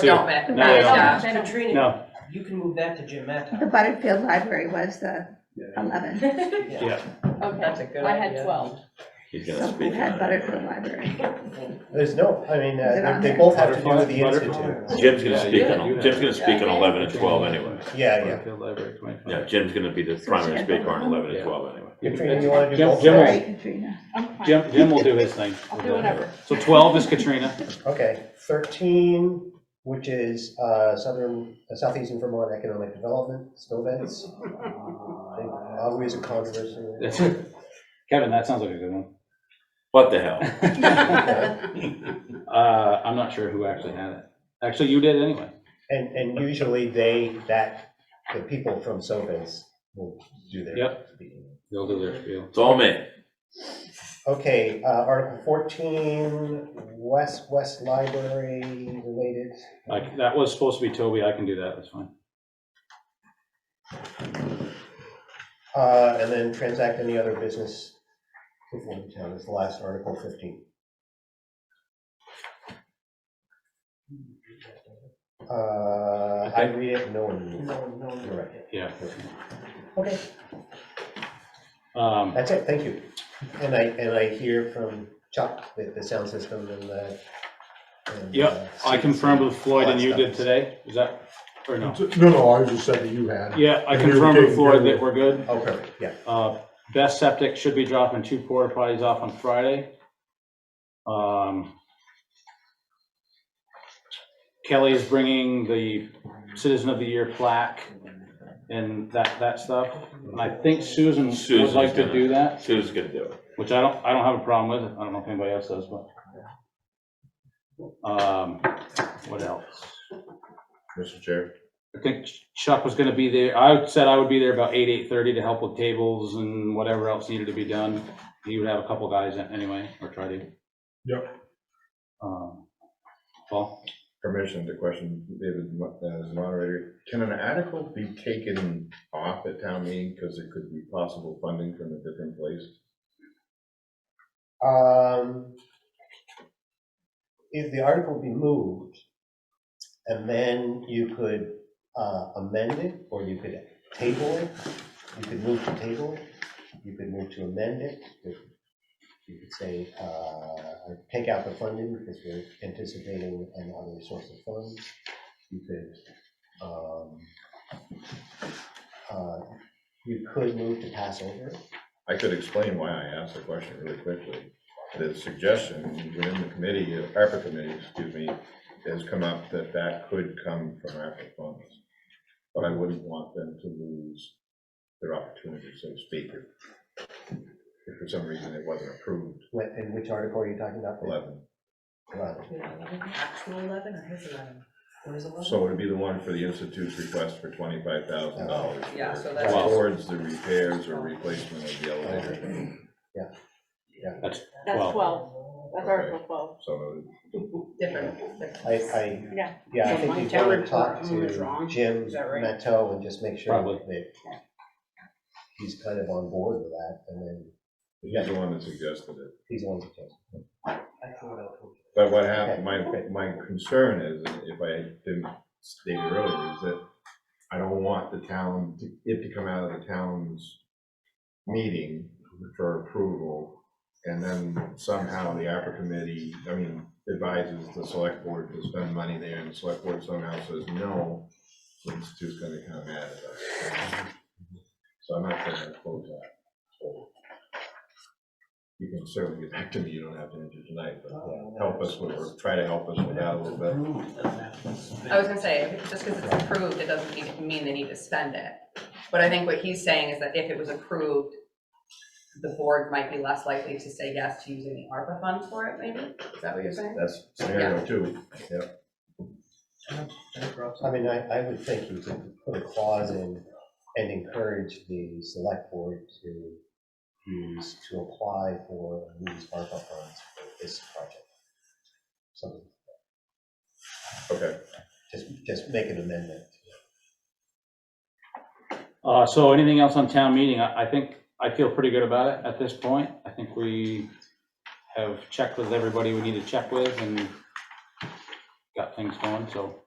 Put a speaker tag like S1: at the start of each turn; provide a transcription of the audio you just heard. S1: Two.
S2: don't match.
S1: No, they don't
S2: Yeah.
S3: Katrina,
S1: No,
S3: you can move that to Jim
S4: The Butterfield Library was the 11,
S1: yeah,
S3: That's a
S5: Okay,
S3: good
S5: I had
S3: idea.
S5: twelve.
S6: He's
S4: so
S6: gonna
S4: we
S6: speak
S4: had
S6: on it.
S4: Butterfield Library.
S7: There's no, I mean,
S4: Is it
S7: uh,
S4: on
S7: they
S4: there?
S7: they both have to do with the
S1: Butterfly,
S7: institute.
S6: oh, Jim's gonna
S1: Yeah,
S6: speak
S1: yeah, you
S6: on,
S1: have
S6: Jim's
S1: it.
S6: gonna speak on
S5: Okay.
S6: eleven and twelve anyway.
S7: Yeah, yeah.
S1: Butterfield Library, twenty-five.
S6: Yeah, Jim's gonna be the primary speaker on eleven and twelve anyway.
S7: Katrina, you want to do
S1: Jim-
S7: both?
S1: Jim
S4: Sorry, Katrina.
S5: I'm fine.
S1: Jim, Jim will do his thing.
S5: I'll do whatever.
S1: So twelve is Katrina.
S7: Okay, 13, which is uh, Southern, uh, Southeastern Vermont Economic Development, Snowbeds. Always a controversy.
S1: That's- Kevin, that sounds like a good one.
S6: What the hell?
S1: Uh, I'm not sure who actually had it. Actually, you did anyway.
S7: And, and usually they, that, the people from Snowbeds will do their
S1: Yep.
S7: speaking.
S1: They'll do their spiel.
S6: It's all me.
S7: Okay, uh, Article 14, West, West Library related.
S1: Like, that was supposed to be Toby. I can do that. That's fine.
S7: Uh, And then transact any other business before the town is the last Article 15. Uh, I read it, no one reads it.
S3: No, no, no.
S7: You're right.
S1: Yeah.
S7: Okay,
S1: Um,
S7: that's it, thank you. And I, and I hear from Chuck, the, the sound system and the. and,
S1: Yep,
S7: uh,
S1: I confirmed with Floyd and you did
S7: Stuff.
S1: today. Is that, or no?
S8: No, no, I was just saying that you had.
S1: Yeah, I confirmed with Floyd that we're good.
S7: Oh, perfect, yeah.
S1: Uh, Best Septic should be dropping two porta potties off on Friday. Um, Kelly is bringing the Citizen of the Year plaque and that, that stuff. And I think Susan would
S6: Susan's
S1: like to
S6: gonna-
S1: do that,
S6: Sue's gonna do it.
S1: which I don't, I don't have a problem with. I don't know if anybody else does, but. Um, What else?
S6: Mr. Chair.
S1: I think Chuck was gonna be there, I said I would be there about eight, eight-thirty to help with tables and whatever else needed to be done. He would have a couple guys in anyway, or try to.
S8: Yep.
S1: Um, Paul,
S9: permission to question David mo- as moderator. Can an article be taken off at town meeting because it could be possible funding from a different place?
S7: Um, If the article be moved, and then you could uh, amend it, or you could table it, you could move to table it, you could move to amend it, you could- you could say, uh, take out the funding because we're anticipating another source of funds, you could, um, uh, you could move to pass over it.
S9: I could explain why I asked the question really quickly. The suggestion within the committee, uh, ARPA committee, excuse me, has come up that that could come from ARPA funds. But I wouldn't want them to lose their opportunity, so to speak, if if for some reason it wasn't approved,
S7: What- And which article are you talking about?
S9: 11.
S7: Eleven.
S3: Two eleven or his eleven? Or his eleven?
S9: So it would be the one for the institute's request for twenty-five thousand dollars.
S2: Yeah, so that's-
S9: Towards the repairs or replacement of the elevator,
S1: that's
S5: That's
S1: twelve.
S5: twelve. That's Article twelve.
S9: so
S2: Different.
S7: I, I,
S5: Yeah.
S7: yeah, I
S3: So
S7: think
S3: my
S7: you want to
S3: talent
S7: talk
S3: for who is
S7: to
S3: wrong,
S7: Jim
S3: is that right?
S7: Matto and just make sure
S1: Probably.
S7: that he's kind of on board with that, and then
S9: he's the one that suggested it.
S7: he's on the case.
S9: But what happened, my, my concern is, if I didn't state it earlier, is that I don't want the town, to- it to come out of the town's meeting for approval, and then somehow the ARPA committee, I mean, advises the select board to spend money there, and the select board somehow says no, the institute's gonna come mad at us. So I'm not gonna close that. You can certainly get back to me, you don't have to enter tonight, but help us with, or try to help us with that a little bit.
S2: I was gonna say, just because it's approved, it doesn't need- mean they need to spend it. But I think what he's saying is that if it was approved, the board might be less likely to say yes to using the ARPA funds for it, maybe? Is that what you're saying?
S9: That's scenario two.
S7: I mean, I, I would think you could put a clause in and encourage the select board to use, to apply for, and use ARPA funds for this project. So
S9: Okay,
S7: just, just make an amendment.
S1: Uh, so anything else on town meeting? I, I think, I feel pretty good about it at this point. I think we have checked with everybody we need to check with and got things going, so